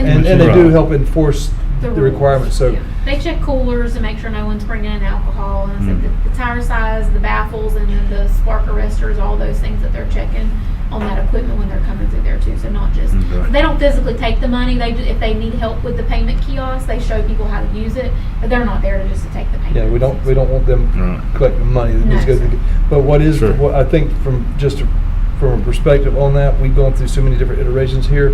And they do Right. help enforce the rules. requirements, so. Yeah. They check coolers to make sure no one's bringing in alcohol, and so Mhm. the the tire size, the baffles, and then the spark arresters, all those things that they're checking on that equipment when they're coming through there too, so not just, Okay. they don't physically take the money, they, do- if they need help with the payment kiosk, they show people how to use it, but they're not there to just to take the payment. Yeah, we don't, we don't want Right. them collecting money that needs to go No. through. But what is, Sure. what I think from, just from a perspective on that, we've gone through so many different iterations here.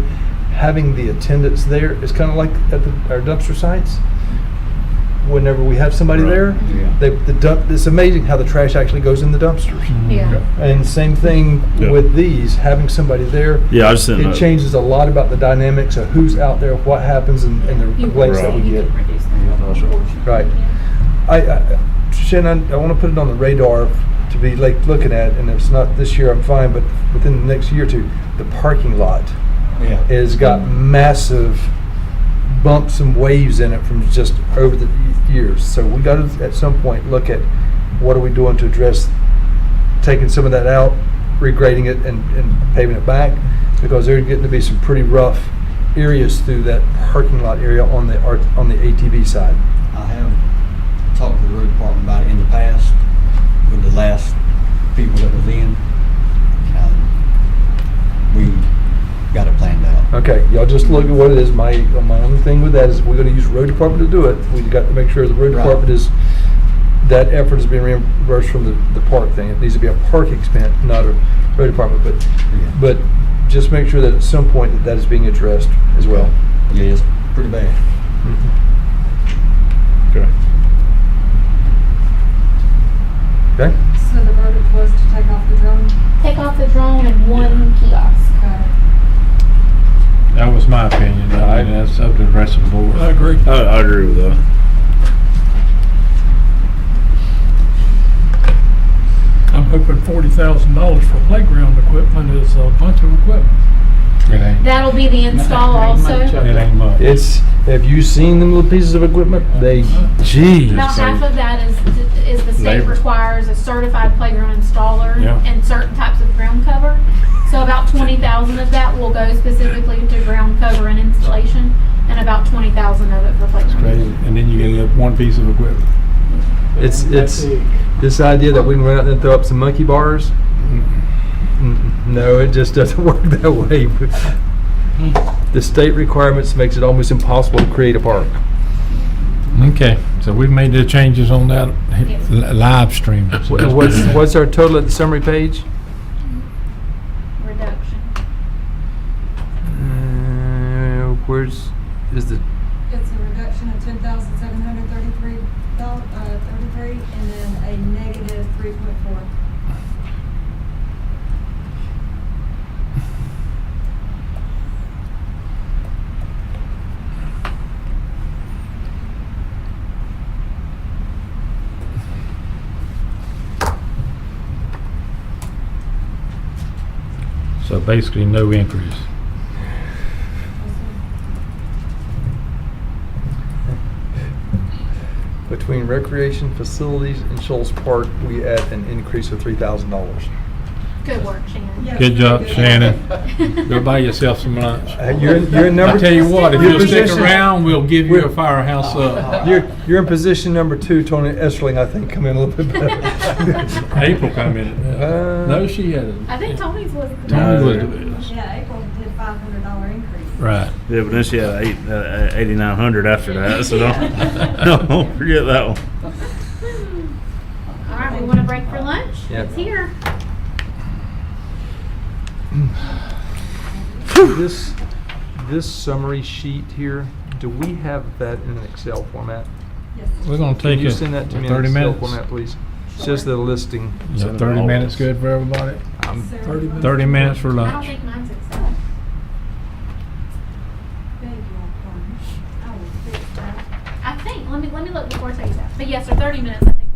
Having the attendants there is kind of like at the, our dumpster sites. Whenever we have somebody Right. there, Yeah. they, the dump, it's amazing how the trash actually goes in the dumpsters. Yeah. And same thing Mm-hmm. Yeah. with these, having somebody there. Yeah, I just didn't know. It changes a lot about the dynamics of who's out there, what happens, and and the You- complaints that Right. we You get. can reduce that, that's right. unfortunately. Right. Yeah. I, I Shannon, I want to put it on the radar to be like looking at, and if it's not this year, I'm fine, but within the next year or two, the parking lot Yeah. has got massive bumps and waves in it from just over the years. So we got to at some point look at what are we doing to address taking some of that out, regrading it, and, and paving it back because there are getting to be some pretty rough areas through that parking lot area on the art- on the ATV side. I have talked to the road department about it in the past with the last people that was in. and We got it planned out. Okay, y'all just look at what it is. My, my only thing with that is we're gonna use road department to do it. We got to make sure the road Right. department is, that effort is being reimbursed from the, the park thing. It needs to be a park expense, not a road department, but, Yeah. but just make sure that at some point that that is being addressed as well. Yeah, it's pretty bad. Okay. Okay? So the verdict was to take off the drone? Take off the drone and one kiosk. That was my opinion. I mean, that's up to the rest of the board. I agree. Uh, I, I agree with that. I'm hoping forty thousand dollars for playground equipment is a bunch of equipment. It ain't, it That'll be the install also. ain't much. It's, have you seen them little pieces of equipment? They, gee. About half of that is, is the state Labor. requires a certified playground installer Yeah. and certain types of ground cover. So about twenty thousand of that will go specifically to ground cover and installation, and about twenty thousand of it for playground. Crazy. And then you get that one piece of equipment. It's, it's, this idea that we can run out there and throw up some monkey bars? Mm, No, it just doesn't work that way. The state requirements makes it almost impossible to create a park. Okay, so we've made the changes on that Yes. li- live stream. So that's What's, good. what's our total at the summary page? Reduction. Uh, Where's, is the, It's a reduction of ten thousand seven hundred thirty-three dollars, uh, thirty-three, and then a negative three point four. So basically, no increase. between recreation facilities and Shoals Park, we add an increase of three thousand dollars. Good work, Shannon. Yeah. Good job, Shannon. Go buy yourself some lunch. Uh, You're, you're in number. I tell you what, if you'll stick Position- around, we'll give you a firehouse up. You're, you're in position number two, Tony Estling, I think, come in a little bit better. April come in. Uh, No, she hasn't. I think Tony's was. the Tony best. was the best. Yeah, April did five hundred dollar increase. Right. Yeah, but then she had eight, uh, 8,900 after that, so don't, don't forget that one. All right, we want to break for lunch? Yep. It's here. This, this summary sheet here, do we have that in an Excel format? Yes. We're gonna Can take you a send that to me in an thirty Excel minutes. format, please? It's Just the listing. Is that thirty minutes good for everybody? I'm- Sarah, thirty minutes. um, Thirty minutes for I don't lunch. think mine's Excel. beg your pardon. I will fix that. I think, let me, let me look before I tell you that. But yes, or thirty minutes, I think